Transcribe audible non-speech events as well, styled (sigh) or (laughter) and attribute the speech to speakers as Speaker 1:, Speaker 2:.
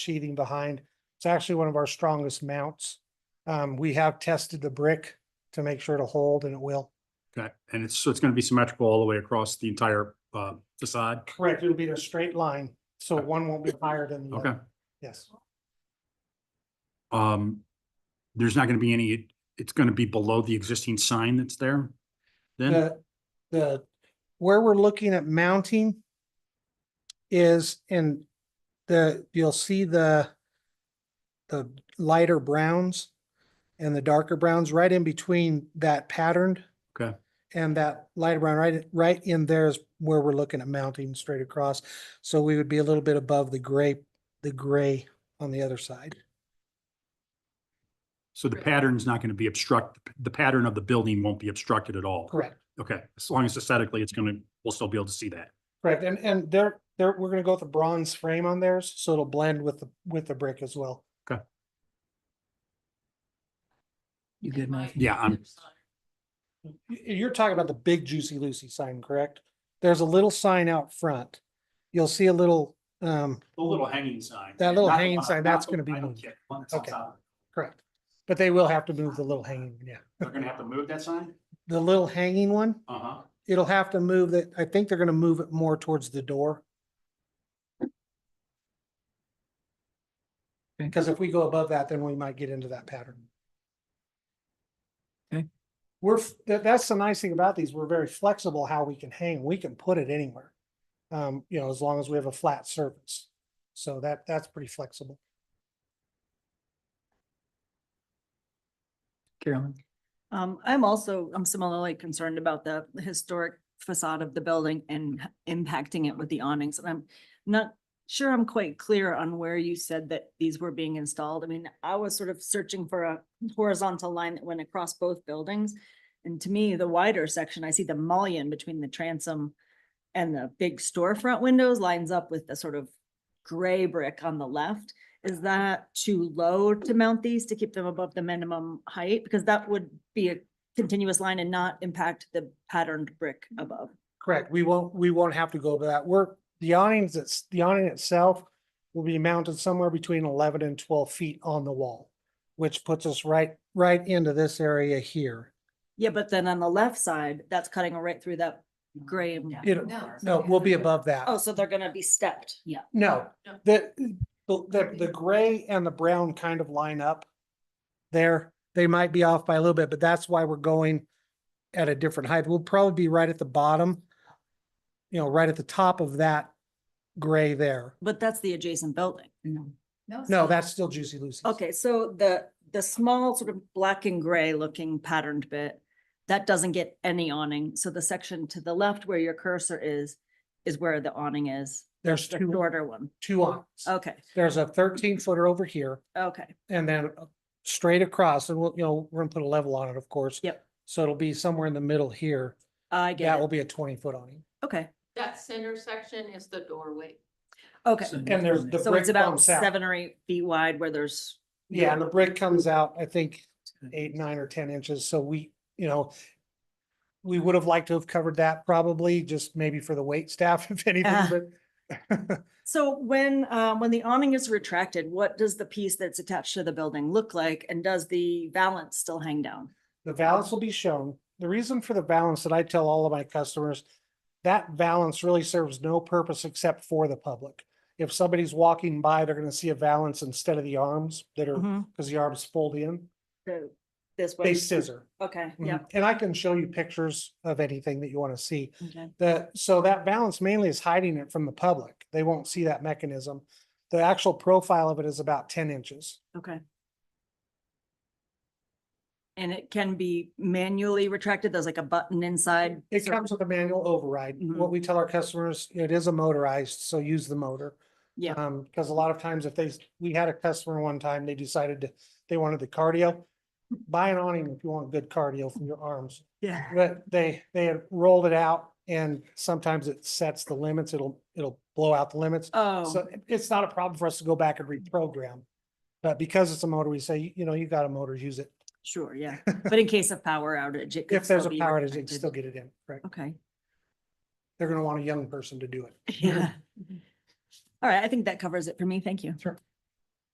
Speaker 1: sheathing behind. It's actually one of our strongest mounts. Um, we have tested the brick to make sure to hold and it will.
Speaker 2: Okay, and it's, so it's gonna be symmetrical all the way across the entire uh, facade?
Speaker 1: Correct, it'll be a straight line, so one won't be higher than the
Speaker 2: Okay,
Speaker 1: other. Yes,
Speaker 2: um, there's not gonna be any, it's gonna be below the existing sign that's there? Then,
Speaker 1: the, the, where we're looking at mounting is in the, you'll see the the lighter browns and the darker browns right in between that patterned
Speaker 2: okay,
Speaker 1: And that light brown, right, right in there is where we're looking at mounting straight across. So we would be a little bit above the gray, the gray on the other side.
Speaker 2: so the pattern's not gonna be obstruct, the pattern of the building won't be obstructed at all?
Speaker 1: Correct.
Speaker 2: Okay, as long as aesthetically, it's gonna, we'll still be able to see that.
Speaker 1: Correct. And, and there, there, we're gonna go with a bronze frame on theirs, so it'll blend with the, with the brick as well.
Speaker 3: You good, Mike?
Speaker 2: Yeah, I'm-
Speaker 1: Y- You're talking about the big Juicy Lucy sign, correct? There's a little sign out front. You'll see a little, um,
Speaker 2: The little hanging sign.
Speaker 1: That little Not the hanging one- sign, not that's the- gonna be I don't moved.
Speaker 2: They're
Speaker 1: on Okay. correct. But they will have to move the little hanging, yeah.
Speaker 2: gonna have to move that sign?
Speaker 1: The little hanging one,
Speaker 2: Uh-huh.
Speaker 1: it'll have to move that, I think they're gonna move it more towards the door.
Speaker 3: Okay.
Speaker 1: Because if we go above that, then we might get into that pattern.
Speaker 3: Okay.
Speaker 1: We're, f- that, that's the nice thing about these, we're very flexible how we can hang, we can put it anywhere. Um, you know, as long as we have a flat surface, so that, that's pretty flexible.
Speaker 3: Carolyn,
Speaker 4: Um, I'm also, I'm similarly concerned about the historic facade of the building and h- impacting it with the awnings. And I'm not sure I'm quite clear on where you said that these were being installed. I mean, I was sort of searching for a horizontal line that went across both buildings. And to me, the wider section, I see the mullion between the transom and the big storefront windows lines up with the sort of gray brick on the left. Is that too low to mount these to keep them above the minimum height? Because that would be a continuous line and not impact the patterned brick above.
Speaker 1: Correct. We won't, we won't have to go over that. We're, the awnings, that's, the awning itself will be mounted somewhere between eleven and twelve feet on the wall, which puts us right, right into this area here.
Speaker 4: Yeah, but then on the left side, that's cutting right through that gray. and-
Speaker 1: It'll- No, we'll be above that.
Speaker 4: Oh, so they're gonna be stepped. Yeah.
Speaker 1: No, the, the, the- the gray and the brown kind of line up there. They might be off by a little bit, but that's why we're going at a different height. We'll probably be right at the bottom, you know, right at the top of that gray there.
Speaker 4: But that's the adjacent building.
Speaker 1: No, that's still Juicy Lucy's.
Speaker 4: Okay, so the, the small sort of black and gray looking patterned bit, that doesn't get any awning. So the section to the left where your cursor is, is where the awning is,
Speaker 1: There's
Speaker 4: the
Speaker 1: two,
Speaker 4: shorter one. Oh.
Speaker 1: two aisles.
Speaker 4: Okay,
Speaker 1: There's a thirteen footer over here
Speaker 4: okay,
Speaker 1: and then uh, straight across and we'll, you know, we're gonna put a level on it, of course.
Speaker 4: Yep.
Speaker 1: So it'll be somewhere in the middle here.
Speaker 4: I
Speaker 1: That
Speaker 4: get
Speaker 1: will
Speaker 4: it.
Speaker 1: be a twenty foot awning.
Speaker 4: Okay,
Speaker 5: That center section is the doorway.
Speaker 4: okay.
Speaker 1: And there's the
Speaker 4: So
Speaker 1: brick
Speaker 4: it's about
Speaker 1: comes out.
Speaker 4: seven or eight feet wide where there's,
Speaker 1: Yeah, and the brick comes out, I think, eight, nine or ten inches. So we, you know, we would have liked to have covered that probably just maybe for the wait staff, (laughs) if
Speaker 4: Ah.
Speaker 1: anything, but (laughs)
Speaker 4: so when, uh, when the awning is retracted, what does the piece that's attached to the building look like? And does the valance still hang down?
Speaker 1: the balance will be shown. The reason for the balance that I tell all of my customers, that balance really serves no purpose except for the public. If somebody's walking by, they're gonna see a balance instead of the arms that
Speaker 4: Mm-hmm.
Speaker 1: are, because the arms fold in,
Speaker 4: So this way.
Speaker 1: they scissor.
Speaker 4: Okay,
Speaker 1: Mhm.
Speaker 4: yeah.
Speaker 1: And I can show you pictures of anything that you want to see.
Speaker 4: Okay.
Speaker 1: The, so that balance mainly is hiding it from the public. They won't see that mechanism. The actual profile of it is about ten inches.
Speaker 4: Okay. And it can be manually retracted, there's like a button inside.
Speaker 1: It
Speaker 4: so-
Speaker 1: comes with a manual override.
Speaker 4: Mhm.
Speaker 1: What we tell our customers, it is a motorized, so use the motor.
Speaker 4: Yeah.
Speaker 1: Um, because a lot of times if they, s- we had a customer one time, they decided to, they wanted the cardio. Buy an awning if you want good cardio for your arms,
Speaker 4: Yeah.
Speaker 1: but they, they had rolled it out and sometimes it sets the limits. It'll, it'll blow out the limits.
Speaker 4: Oh,
Speaker 1: So it- it's not a problem for us to go back and reprogram. But because it's a motor, we say, you know, you got a motor, use it.
Speaker 4: sure,
Speaker 1: (laughs)
Speaker 4: yeah. But in case of power outage, it could.
Speaker 1: If there's a
Speaker 4: still be
Speaker 1: power outage, they can
Speaker 4: retracted.
Speaker 1: still get it in, correct?
Speaker 4: Okay,
Speaker 1: They're gonna want a young person to do it.
Speaker 4: (laughs) yeah. All right, I think that covers it for me. Thank you.
Speaker 1: Sure.